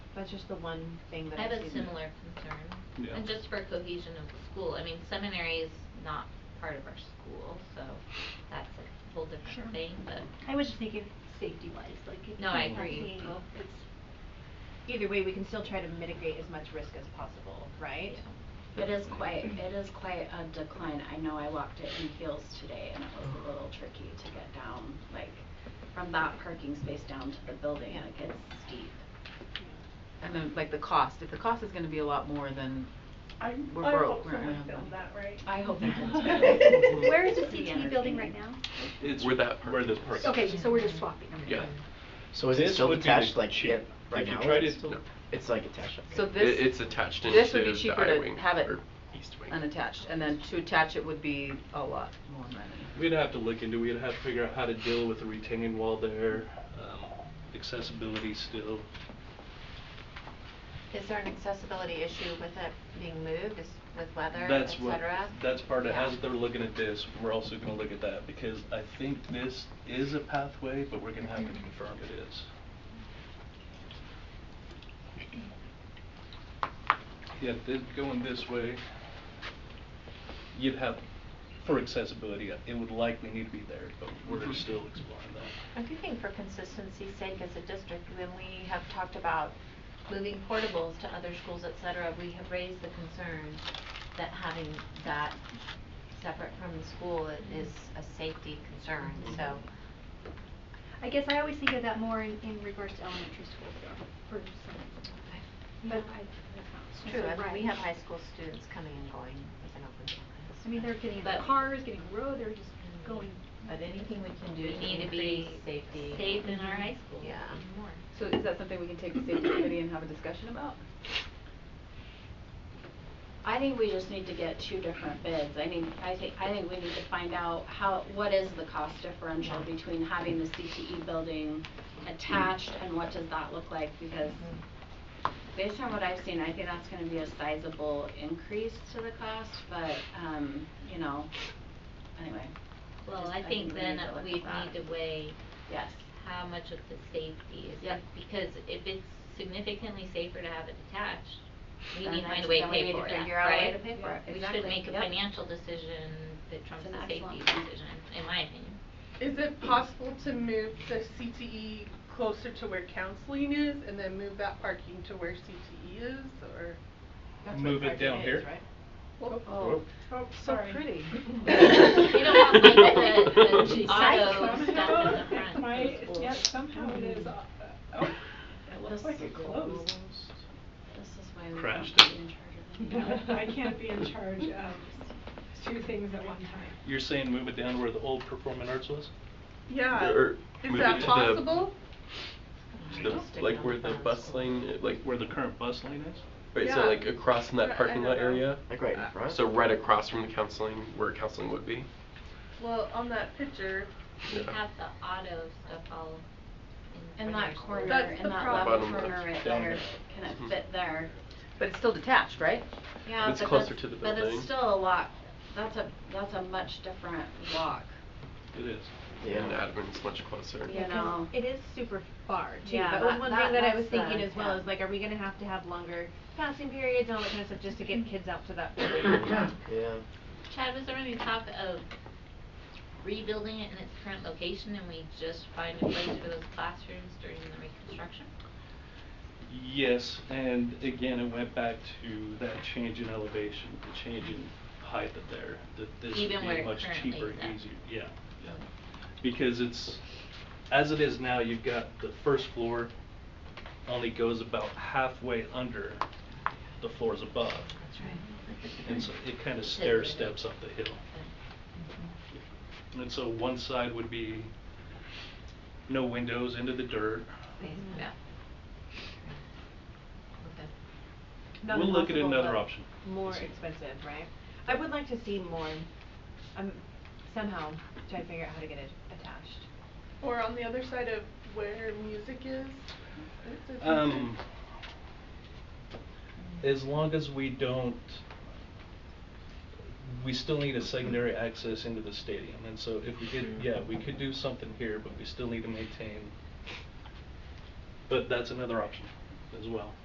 That's just the one thing that I I've have seen. a similar concern. Yeah. And just for cohesion of the school, I mean, seminary is not part of our school, so that's a whole Sure. different thing, but. I was just thinking safety wise, like if No, I people are agree. seeing, oh, it's Either way, we can still try to mitigate as much risk as possible, right? Yeah. It is quite, it is quite a decline. I know I walked it in heels today and it was a little tricky to get down, like from that parking space down to the building, Yeah. like it's steep. And then like the cost, if the cost is gonna be a lot more than I, We're I broke, hope we're uh, not someone gonna have filmed that, right? I hope it does. Where is the Pretty CTE building right now? entertaining. It's Where that Where parking this is. parking. Okay, so we're just swapping. Yeah. So is it This still would be attached the like cheap- it right if you now? tried It's it- still- no. It's like attached, okay. So It- this it's attached into this would be the cheaper I to wing, have it or east wing. unattached, and then to attach it would be a lot more money. We'd have to look into, we'd have to figure out how to deal with the retaining wall there, um, accessibility still. Is there an accessibility issue with it being moved, is with weather, et That's what, cetera? that's part of, Yeah. as they're looking at this, we're also gonna look at that, because I think this is a pathway, but we're gonna have to confirm it is. Yeah, thi- going this way, you'd have, for accessibility, it would likely need to be there, but we're still exploring that. I do think for consistency's sake as a district, when we have talked about moving portables to other schools, et cetera, we have raised the concern that having that separate from the school i- is a safety concern, so. I guess I always think of that more in, in regards to elementary school though, for some, but I, that's It's not true, I necessarily right. mean, we have high school students coming and going with an open door. I mean, they're getting in But- their cars, getting in the road, they're just going. But anything we can We need to be safe in our high school. Yeah. More. So is that something we can take to safety committee and have a discussion about? I think we just need to get two different bids. I mean, I think, I think we need to find out how, what is the cost differential between having the CTE building attached and what does that look like? Because Mm. based on what I've seen, I think that's gonna be a sizable increase to the cost, but, um, you know, anyway, Well, Just- I I think think we then need to look we at need that. to weigh yes. how much of the safety is, Yep. because if it's significantly safer to have it detached, we Then need to find that's- a way to then we pay need to for that, right? figure out a way to pay for it. We Exactly. should make a Yep. financial decision that trumps an a excellent safety point. decision, in my opinion. Is it possible to move the CTE closer to where counseling is and then move that parking to where CTE is or? Move it down here? Oh. Oh, So pretty. You don't want like the, the Geez. auto Somehow stuff in the front. it might, yeah, somehow it is, uh, oh, it looks like it closed. This is why we don't Crashed have it. to be in charge of it. No, I can't be in charge of two things at one time. You're saying move it down where the old performing arts was? Yeah, Or is move it that to the- possible? The- Just stick Like on where the the bus. bus lane, it- like, Where the current bus lane is? right, so Yeah. uh, like across from I- I that parking lot don't know. area? Like right in front? So right across from the counseling, where counseling would be? Well, on that picture, We Yeah. have the auto stuff all in In front of that our corner, school. That's in the that problem. level Bottom corner left, right down there, there. can it Mhm. fit there? But it's still detached, right? Yeah, It's but closer that's- to the But building. it's still a lot, that's a, that's a much different walk, It is. Yeah. And Adam's much closer. you know? It is super far too, Yeah, but that- one that- thing that I that's was thinking the- as well yeah. is like, are we gonna have to have longer passing periods and all that kind of stuff just to get kids out to that? Yeah. Chad, was there any talk of rebuilding it in its current location and we just find a place for those classrooms during the reconstruction? Yes, and again, it went back to that change in elevation, the change in height of there, that this would Even where be it much currently cheaper and is at. easier, yeah, yeah. Because it's, as it is now, you've got the first floor only goes about halfway under the floors above. That's right. And so it kind of stair steps up the hill. And so one side would be no windows into the dirt. Yeah. Not We'll look at impossible, another but option. More See. expensive, right? I would like to see more, um, somehow try to figure out how to get it attached. or on the other side of where music is? Is it Um, as long as we don't, we still need a secondary access into the stadium, and so if we did, yeah, we could do something here, but we still need to maintain. But that's another option as well.